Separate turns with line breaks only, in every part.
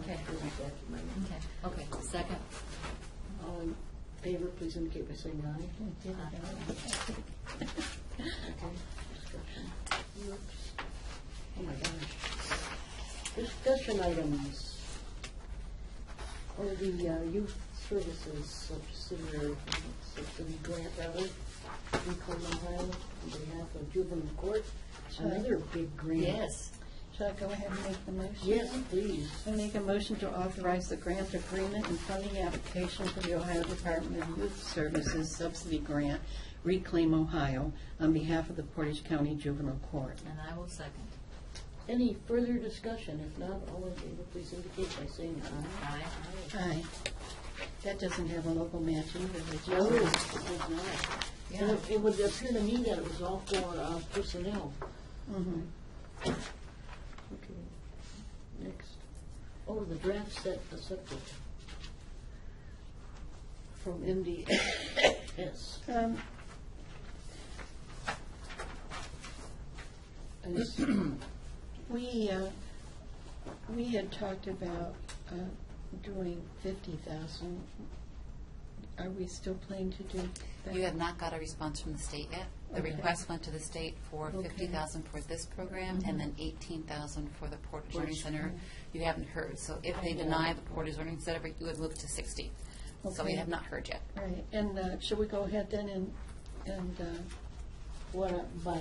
Okay. Okay, okay, second.
All in favor, please indicate by saying aye. Okay. Discussion. Oops. Oh, my gosh. Discussion items. Or the uh, youth services subsidiary, subsidy grant, rather, in Cleveland, Ohio, on behalf of juvenile court. Another big grant.
Yes,
Shall I go ahead and make the motion?
Yes, please.
I make a motion to authorize the grant agreement and funding application for the Ohio Department of Youth Services subsidy grant Reclaim Ohio on behalf of the Portage County Juvenile Court.
and I will second.
Any further discussion? If not, all in favor, please indicate by saying aye.
Aye.
Aye. That doesn't have a local match either, does it?
No, it does not. And
Yeah,
it- it would appear to me that it was all for uh, personnel.
Mhm.
Okay. Next. Oh, the draft set the subject from MDS.
Um,
And it's-
We, uh, we had talked about uh, doing fifty thousand. Are we still planning to do that?
You have not got a response from the state yet. The
Okay.
request went to the state for
Okay.
fifty thousand for this program and then eighteen thousand for the Portage Learning Center. You haven't heard, so if they deny the Portage Learning Center, you would move to sixty. So we
Okay.
have not heard yet.
Right, and uh, should we go ahead then and, and uh,
What, by,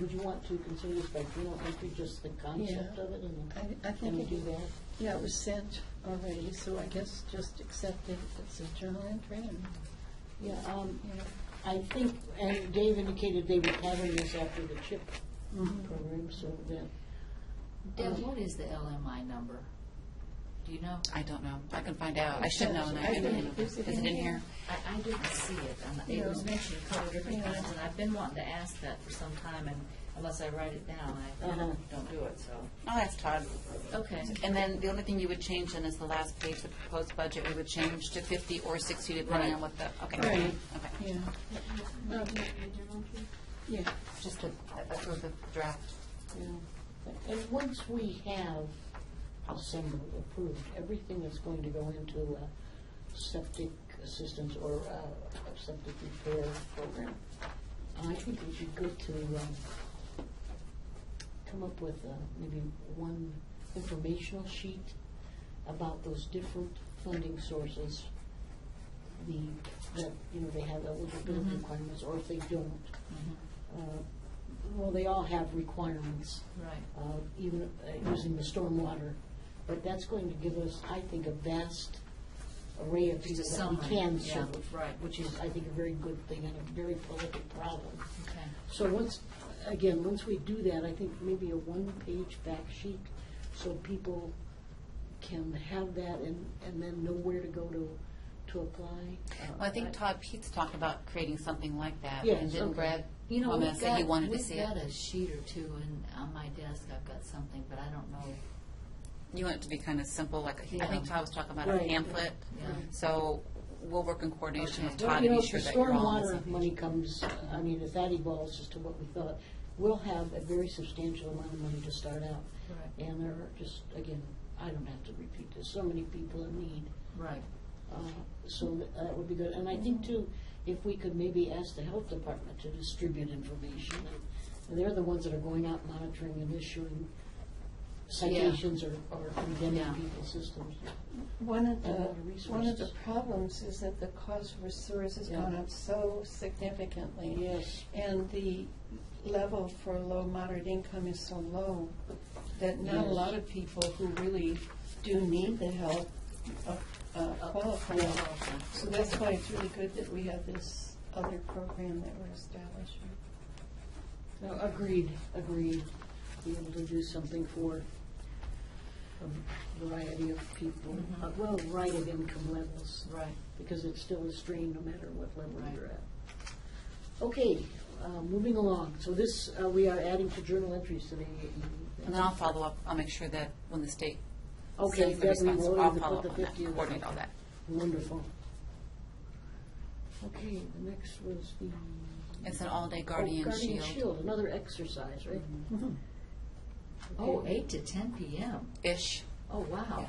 would you want to consider this by journal entry, just the concept
Yeah.
of it? and then-
I, I
Can we
think,
do
it-
that?
yeah, it was sent already, so I guess just accept it as a journal entry and,
Yeah, um,
you know.
I think, and Dave indicated they were having this after the CHIP
Mhm.
program, so that,
Deb, what is the LMI number? Do you know?
I don't know. I can find out. I should know and I
I
didn't.
think-
Is it in here?
I, I didn't see it, and it was mentioned a couple different times, and I've been wanting to ask that for some time, and unless I write it down, I
Uh-huh.
don't do it, so.
I'll ask Todd.
Okay,
And then the only thing you would change then is the last page, the proposed budget, we would change to fifty or sixty depending on what the, okay.
Right.
Okay.
Yeah. Um, Yeah,
Just to approve the draft.
you know. And once we have assembled, approved, everything that's going to go into a septic assistance or a a septic repair program, I think it would be good to, um, come up with uh, maybe one informational sheet about those different funding sources, the, that, you know, they have eligibility requirements, or if they don't.
Mm-hmm.
Uh, Well, they all have requirements,
right.
uh, even uh, using the stormwater, but that's going to give us, I think, a vast array of people
Just a
that we
summary,
can
yeah,
serve.
right.
Which is, I think, a very good thing and a very political problem.
Okay,
So once, again, once we do that, I think maybe a one-page fact sheet, so people can have that and, and then know where to go to, to apply.
Well, I think Todd Pete's talked about creating something like that.
Yes,
And didn't
okay.
Brad,
You know,
I'm
we've
gonna say he
got-
wanted to see
We've got
it.
a sheet or two in, on my desk, I've got something, but I don't know,
You want it to be kind of simple, like, I think
Yeah.
Todd was talking about a
Right.
pamphlet.
yeah.
So we'll work in coordination with
Okay.
Well,
Todd
you
to
know,
be
if the
sure that you're all on the
stormwater
same
money comes, I mean, if that evolves as to what we thought, we'll have a very substantial amount of money to start out.
Right.
And there are just, again, I don't have to repeat this, so many people in need.
Right,
Uh, So th- that would be good. And I think too, if we could maybe ask the health department to distribute information. And They're the ones that are going out monitoring and issuing citations or or condemning
Yeah.
people's systems.
one of
A lot
the,
of
one of the
resources.
problems is that the cost for sewers has
Yeah.
gone up so significantly.
Yes.
And the level for low moderate income is so low that not a
Yes.
lot of people who really do need the help uh, uh, qualify. So that's why it's really good that we have this other program that we're establishing.
No, agreed, agreed. Be able to do something for a variety of people,
Mm-hmm.
uh, well, variety of income levels,
right.
because it's still a strain no matter what level
Right.
you're at. Okay, uh, moving along. So this, uh, we are adding to journal entries today.
And then I'll follow up, I'll make sure that when the state
Okay,
sends the
then we
response,
will
I'll
either
follow
put
up
the
on that,
50 or the-
coordinate all that.
Wonderful. Okay, the next was the.
It's an all-day
oh,
Guardian Mm-hmm.
Guardian
Shield-ish.
Shield, another exercise, right?
Oh,
Okay.
eight to ten PM. Oh, wow.